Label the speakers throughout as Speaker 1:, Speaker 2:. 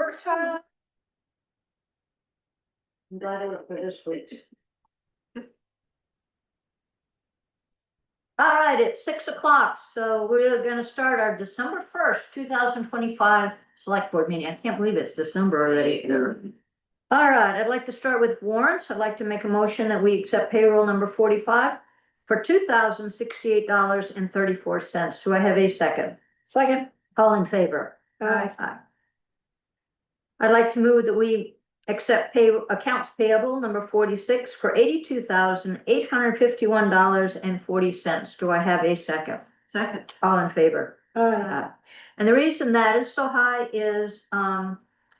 Speaker 1: workshop.
Speaker 2: I'm glad I went for this week. All right, it's six o'clock, so we're gonna start our December first, two thousand twenty-five select board meeting. I can't believe it's December already. All right, I'd like to start with warrants. I'd like to make a motion that we accept payroll number forty-five for two thousand sixty-eight dollars and thirty-four cents. Do I have a second? Second. All in favor?
Speaker 3: Uh,
Speaker 1: Aye.
Speaker 2: Aye. I'd like to move that we accept pay, accounts payable number forty-six for eighty-two thousand, eight hundred fifty-one dollars and forty cents. Do I have a second?
Speaker 1: Second.
Speaker 2: All in favor?
Speaker 1: Aye.
Speaker 2: Aye. And the reason that is so high is, um,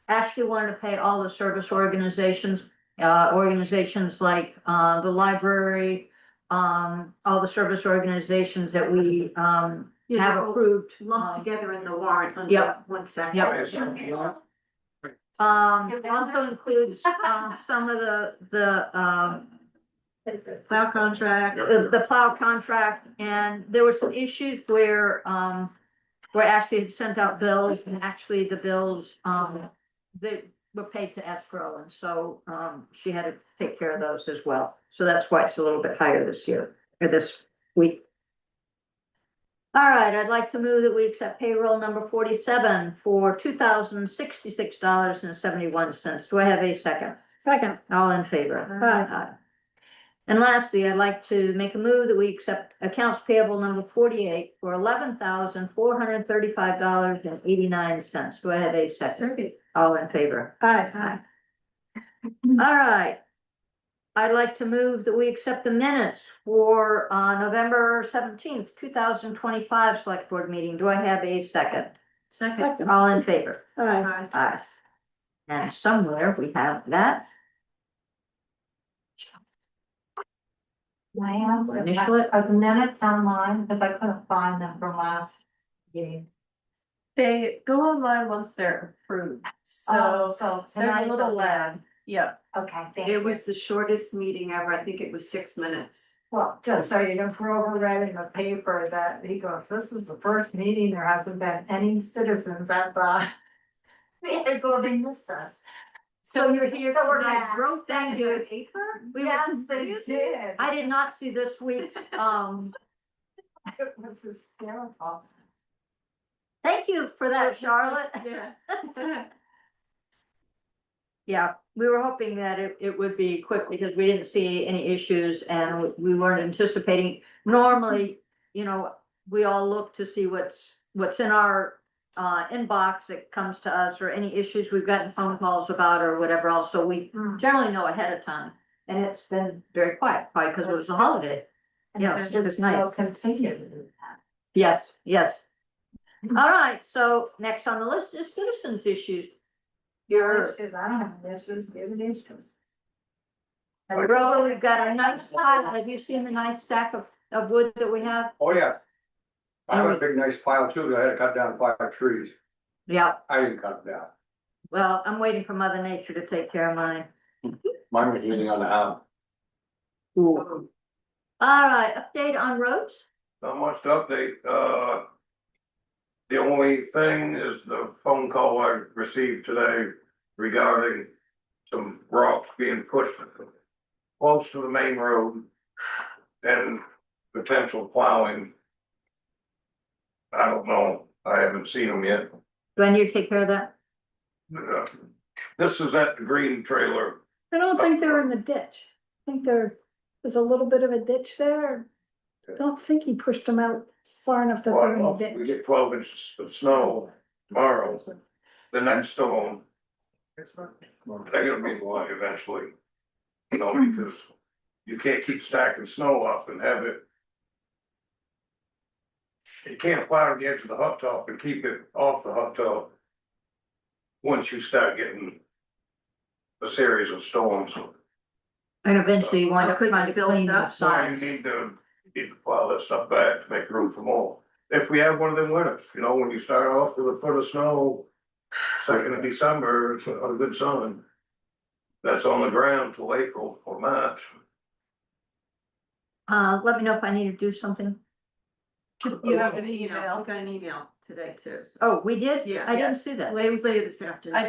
Speaker 2: Ashley wanted to pay all the service organizations, uh, organizations like, uh, the library, um, all the service organizations that we, um,
Speaker 1: You
Speaker 2: have approved.
Speaker 1: lumped
Speaker 2: um,
Speaker 1: together in the warrant under
Speaker 2: Yep.
Speaker 1: one section.
Speaker 2: Yep. Um, it also includes, um, some of the, the, um,
Speaker 1: Cloud contract.
Speaker 2: the, the plow contract, and there were some issues where, um, where Ashley had sent out bills, and actually the bills, um, they were paid to escrow, and so, um, she had to take care of those as well. So that's why it's a little bit higher this year, or this week. All right, I'd like to move that we accept payroll number forty-seven for two thousand sixty-six dollars and seventy-one cents. Do I have a second?
Speaker 1: Second.
Speaker 2: All in favor? Aye. And lastly, I'd like to make a move that we accept accounts payable number forty-eight for eleven thousand four hundred thirty-five dollars and eighty-nine cents. Do I have a second?
Speaker 1: Second.
Speaker 2: All in favor?
Speaker 1: Aye.
Speaker 2: All right. I'd like to move that we accept the minutes for uh November seventeenth, two thousand twenty-five select board meeting. Do I have a second?
Speaker 1: Second.
Speaker 2: All in favor?
Speaker 1: Aye.
Speaker 2: Aye. And somewhere we have that.
Speaker 3: Diane, are
Speaker 2: Initial it.
Speaker 3: the minutes online, because I couldn't find them from last meeting.
Speaker 4: They go online once they're approved,
Speaker 3: Oh,
Speaker 4: so
Speaker 3: so
Speaker 4: there's
Speaker 3: tonight
Speaker 4: a little
Speaker 3: they'll be
Speaker 4: lag, yeah.
Speaker 3: on. Okay, thank
Speaker 1: It
Speaker 3: you.
Speaker 1: was the shortest meeting ever. I think it was six minutes.
Speaker 3: Well, just so you know, Grover read in the paper that he goes, this is the first meeting, there hasn't been any citizens at the. They're going to miss us.
Speaker 2: So you're here
Speaker 3: So we're
Speaker 2: tonight.
Speaker 3: back.
Speaker 2: Wrote that you. We were-
Speaker 3: Yes, they did.
Speaker 2: I did not see this week's, um,
Speaker 3: It was hysterical.
Speaker 2: thank you for that, Charlotte.
Speaker 1: Yeah.
Speaker 2: Yeah, we were hoping that it, it would be quick because we didn't see any issues and we weren't anticipating. Normally, you know, we all look to see what's, what's in our, uh, inbox that comes to us or any issues we've gotten phone calls about or whatever else. So we
Speaker 3: Mm.
Speaker 2: generally know ahead of time. And it's been very quiet, probably because it was a holiday.
Speaker 3: And
Speaker 2: Yes,
Speaker 3: they're
Speaker 2: it was nice.
Speaker 3: still continuing that.
Speaker 2: Yes, yes.
Speaker 1: Mm-hmm.
Speaker 2: All right, so next on the list is citizens issues. Your,
Speaker 3: Issues, I don't have any issues, it was issues.
Speaker 2: Rover, we've got a nice pile. Have you seen the nice stack of, of wood that we have?
Speaker 5: Oh, yeah. I have a big nice pile too, that I had to cut down five trees.
Speaker 2: Yeah,
Speaker 5: I didn't cut them down.
Speaker 2: well, I'm waiting for Mother Nature to take care of mine.
Speaker 5: Mine was leaning on the house.
Speaker 2: All right, update on roads?
Speaker 6: Not much to update, uh. The only thing is the phone call I received today regarding some rocks being pushed. Close to the main road and potential plowing. I don't know, I haven't seen them yet.
Speaker 2: Do I need to take care of that?
Speaker 6: Uh, This is at the green trailer,
Speaker 7: I don't think they're in the ditch. I think there, there's a little bit of a ditch there. I don't think he pushed them out far enough that they're in
Speaker 6: Well,
Speaker 7: the
Speaker 6: we
Speaker 7: ditch.
Speaker 6: get twelve inches of snow tomorrow, the next storm. they're gonna be blind eventually. You know, because you can't keep stacking snow up and have it. You can't plow to the edge of the hot top and keep it off the hot top. Once you start getting. A series of storms,
Speaker 2: And eventually you wind up
Speaker 1: Could
Speaker 2: trying to
Speaker 1: you build
Speaker 2: clean
Speaker 1: it
Speaker 2: up
Speaker 1: up?
Speaker 6: so you
Speaker 2: sides.
Speaker 6: need to, you need to plow that stuff back to make room for more. If we have one of them winters, you know, when you start off with a foot of snow. Second of December, it's a good sun. That's on the ground till April or March.
Speaker 2: Uh, let me know if I need to do something.
Speaker 1: You
Speaker 4: You
Speaker 1: got
Speaker 4: have
Speaker 1: an
Speaker 4: an
Speaker 1: email,
Speaker 4: email.
Speaker 1: I got an email today too. so-
Speaker 2: Oh, we did?
Speaker 1: Yeah.
Speaker 2: I didn't see that.
Speaker 1: Well, it was later this afternoon.
Speaker 4: I